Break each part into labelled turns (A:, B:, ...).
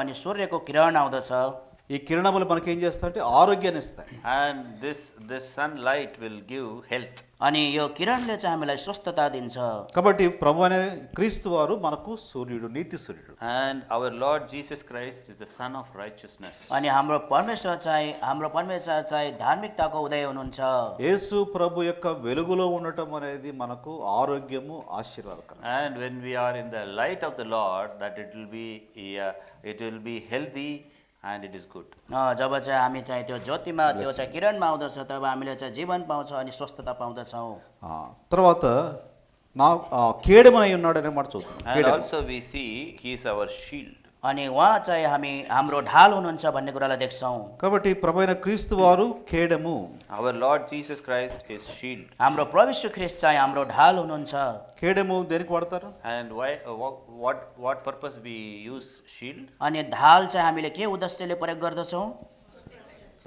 A: अनि सूर्यको किरण आउँदछ
B: ఈ కిరణములు మనకి ఏం చేస్తాయంటే ఆరోగ్యాన్ని ఇస్తాయి
C: and this, this sunlight will give health.
A: अनि यो किरणले चाहिँ हामीलाई स्वस्थता दिन्छ
B: కాబట్టి ప్రభు అనే క్రీస్తు వారు మనకు సూర్యుడు నీతి సూర్యుడు
C: And our Lord Jesus Christ is the Son of Righteousness.
A: अनि हाम्रो परमेश्वर चाहिँ हाम्रो परमेश्वर चाहिँ धार्मिकताको उदय हुनुहुन्छ
B: యేసు ప్రభు యొక్క వెలుగులో ఉండటం అనేది మనకు ఆరోగ్యము ఆశీర్వాదకరం
C: And when we are in the light of the Lord, that it will be, yeah, it will be healthy and it is good.
A: अ, जब चाहिँ हामी चाहिँ त्यो ज्योतिमा त्यो चाहिँ किरणमा आउँदछ तब हामीले चाहिँ जीवन पाउँछ अनि स्वस्थता पाउँदछौँ
B: ఆ, తర్వాత నా ఆ, కేడెమునై ఉన్నాడు అనే మాట చూద్దాం
C: And
B: కేడెము.
C: also we see he is our shield.
A: अनि उहाँ चाहिँ हामी हाम्रो ढाल हुनुहुन्छ भन्ने कुरालाई देख्छौँ
B: కాబట్టి ప్రభు అయిన క్రీస్తు వారు కేడము
C: Our Lord Jesus Christ is shield.
A: हाम्रो प्रविश्व ख्रिस्ट चाहिँ हाम्रो ढाल हुनुहुन्छ
B: కేడెము దేనికి వాడతారు
C: And why, uh, wha- what, what purpose we use shield?
A: अनि ढाल चाहिँ हामीले के उद्देश्यले प्रयोग गर्दछौँ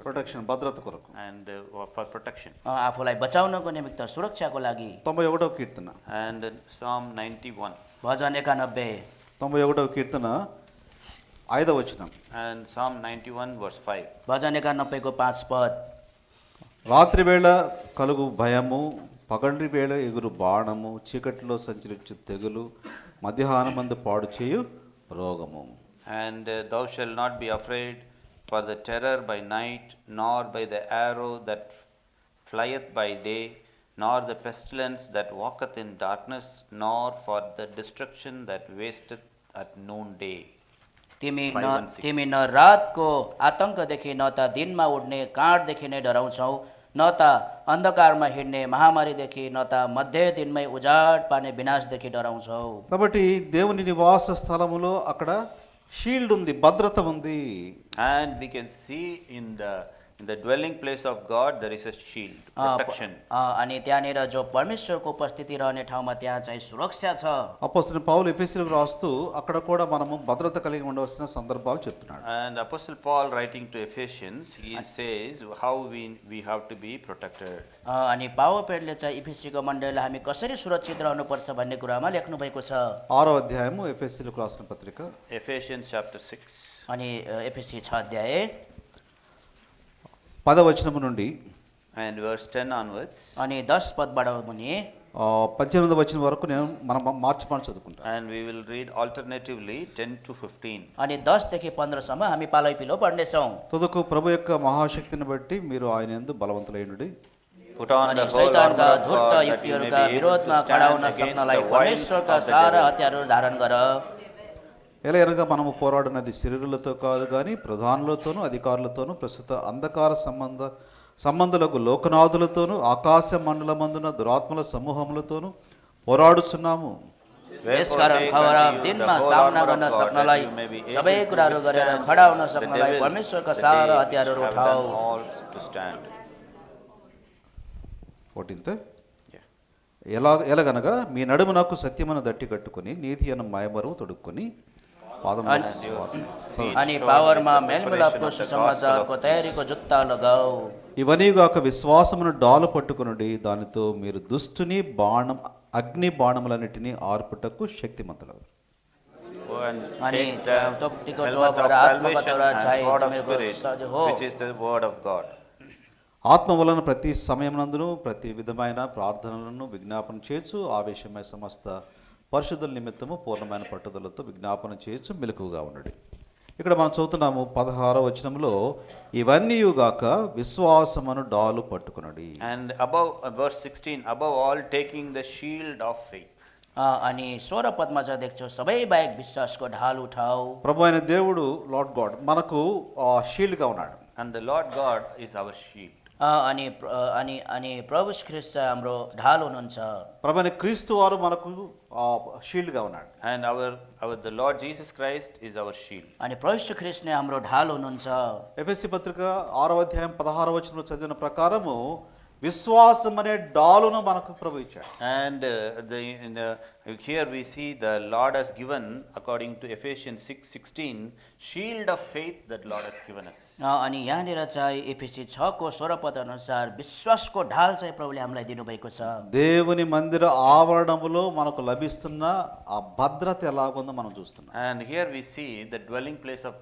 B: ప్రొటెక్షన్ భద్రత కొరకు
C: And uh, for protection.
A: अ, आफूलाई बचाउनको निमित्त सुरक्षाको लागि
B: తొంభై ఒకటవ కీర్తన
C: And Psalm 91
A: भजन एकानब्बे
B: తొంభై ఒకటవ కీర్తన ఐదవ వచనం
C: and Psalm 91 verse 5.
A: भजन एकानब्बेको पाँच पद
B: రాత్రి వేళ కలుగు భయము పగండి వేళ ఎగురు బాణము చీకటిలో సంచరించు తెగులు మధ్యాహ్నమందు పాడు చేయు రోగము
C: And uh, thou shalt not be afraid for the terror by night, nor by the arrow that flieth by day, nor the pestilence that walketh in darkness, nor for the destruction that wasteth at noonday.
A: तिमी
C: Five
A: न
C: and six.
A: तिमी न रातको आतङ्कदेखि न त दिनमा उड्ने काँडदेखि नै डराउँछौ न त अन्धकारमा हिँड्ने महामारीदेखि न त मध्य दिनमै उजाड पार्ने विनाशदेखि डराउँछौ
B: కాబట్టి దేవుని నివాస స్థలములో అక్కడ షీల్డ్ ఉంది భద్రత ఉంది
C: And we can see in the in the dwelling place of God there is a shield,
A: अ, प-
C: protection.
A: अ, अनि त्यहाँनिर जो परमेश्वरको उपस्थिति रहने ठाउँमा त्यहाँ चाहिँ सुरक्षा छ
B: అపోస్తున్న పౌలు ఎఫీసీలకు రాస్తూ అక్కడ కూడా మనము భద్రత కలిగి ఉండవలసిన సందర్భాలు చెప్తున్నాడు
C: And Apostle Paul writing to Ephesians, he says how we, we have to be protected.
A: अ, अनि पावर पेडले चाहिँ इफिसीको मण्डलीलाई हामी कसरी सुरक्षित रहनुपर्छ भन्ने कुरामा लेख्नु भएको छ
B: ఆరో అధ్యాయము ఎఫీసీలకు రాసిన పత్రిక
C: Ephesians chapter 6.
A: अनि एफिसी छ अध्याय
B: పదవచనము నుండి
C: And verse 10 onwards,
A: अनि दस पदबाट मुनि
B: ఆ, పద్దెనిమిదవ వచనం వరకు నేను మనం మార్చి మార్చి చదువుకుంటాను
C: and we will read alternatively 10 to 15.
A: अनि दसदेखि पन्ध्रसम्म हामी पालै पिलो पढ्नेछौँ
B: తుదకు ప్రభు యొక్క మహాశక్తిని బట్టి మీరు ఆయన యందు బలవంతులైనడి
C: Put on
A: अनि
C: the whole armor
A: शैतानका
C: of
A: धूर्त
C: God that you may
A: युक्तिहरूका
C: be able
A: विरोधमा
C: to
A: खडाउन
C: stand against
A: सक्नलाई
C: the wiles of
A: परमेश्वरका
C: the
A: सारा
C: devil.
A: हतियारहरू धारण गर
B: ఎలా అనగా మనము పోరాడినది శరీరులతో కాదు కానీ ప్రధానులతోనూ అధికారులతోనూ ప్రస్తుత అంధకార సంబంధ సంబంధులకు లోకనాథులతోనూ ఆకాశ మండలమందున దురాత్మల సమూహములతోనూ పోరాడుచున్నాము
C: Wherefore
A: यसकारण
C: take
A: खबर
C: unto you
A: दिनमा
C: the whole
A: सामना
C: armor of
A: गर्न
C: God, that
A: सक्नलाई
C: you may be able
A: सबै
C: to
A: कुराहरू गरेर
C: withstand
A: खडा हुन
C: the
A: सक्नलाई
C: devil
A: परमेश्वरका
C: the
A: सारा
C: day
A: हतियारहरू
C: which have
A: उठाऊ
C: done all to stand.
B: Fourteenth
C: Yeah.
B: ఎలా ఎలాగనగా మీ నడుము నాకు సత్యమను దట్టి కట్టుకుని నీతి అను మాయమరువు తొడుక్కుని పాదముల
A: And-
B: స్వార్థ-
A: अनि
C: Surely
A: पावरमा
C: the preparation
A: मेलमिलापको
C: of the gospel
A: सुसमाचारको
C: of
A: तयारीको जुत्ता लगाऊ
B: ఇవనీగాక విశ్వాసమును డాలు పట్టుకునుడి దానితో మీరు దుష్టుని బాణం అగ్ని బాణములన్నిటినీ ఆర్పుటకు శక్తిమంతులవు
C: Oh, And
A: अनि
C: take the
A: तोप्तीको
C: helmet of
A: टोपबाट आत्मको
C: salvation
A: Tora
C: and
A: चाहिँ
C: sword of
A: तिमीहरूको
C: spirit,
A: सज हो।
C: which is the word of God.
B: ఆత్మ వలన ప్రతి సమయమునందును ప్రతి విధమైన ప్రార్థనలను విజ్ఞాపన చేయొచ్చు ఆవేశమై సమస్త పరిశుద్ధుల నిమిత్తము పూర్ణమైన పట్టుదలతో విజ్ఞాపన చేయొచ్చు మెలకుగా ఉండడు ఇక్కడ మనం చదువుతున్నాము పదహారో వచనంలో ఇవన్నీయుగాక విశ్వాసమును డాలు పట్టుకునడి
C: And above, uh, verse 16, above all, taking the shield of faith.
A: अ, अनि सोह्र पदमा चाहिँ देख्छौ सबै बाहेक विश्वासको ढाल उठाऊ
B: ప్రభు అయిన దేవుడు లార్డ్ గాడ్ మనకు ఆ, షీల్డ్గా ఉన్నాడు
C: And the Lord God is our shield.
A: अ, अनि प्र- अ, अनि अनि प्रभु ख्रिस्ट चाहिँ हाम्रो ढाल हुनुहुन्छ
B: ప్రభు అయిన క్రీస్తు వారు మనకు ఆ, షీల్డ్గా ఉన్నాడు
C: And our, our the Lord Jesus Christ is our shield.
A: अनि प्रविश्व ख्रिस्ट नै हाम्रो ढाल हुनुहुन्छ
B: ఎఫ్ఎస్సి పత్రిక ఆరో అధ్యాయం పదహారవ వచనంలో చదివిన ప్రకారము విశ్వాసం అనే డాలును మనకు ప్రభు ఇచ్చాడు
C: And uh, the, in the, here we see the Lord has given, according to Ephesians 6:16, shield of faith that Lord has given us.
A: अ, अनि यहाँनिर चाहिँ एफिसी छको सोह्र पद अनुसार विश्वासको ढाल चाहिँ प्रभुले हामीलाई दिनुभएको छ
B: దేవుని మందిర ఆవరణములో మనకు లభిస్తున్న ఆ భద్రత ఎలాగుందో మనం చూస్తున్నాం
C: And here we see the dwelling place of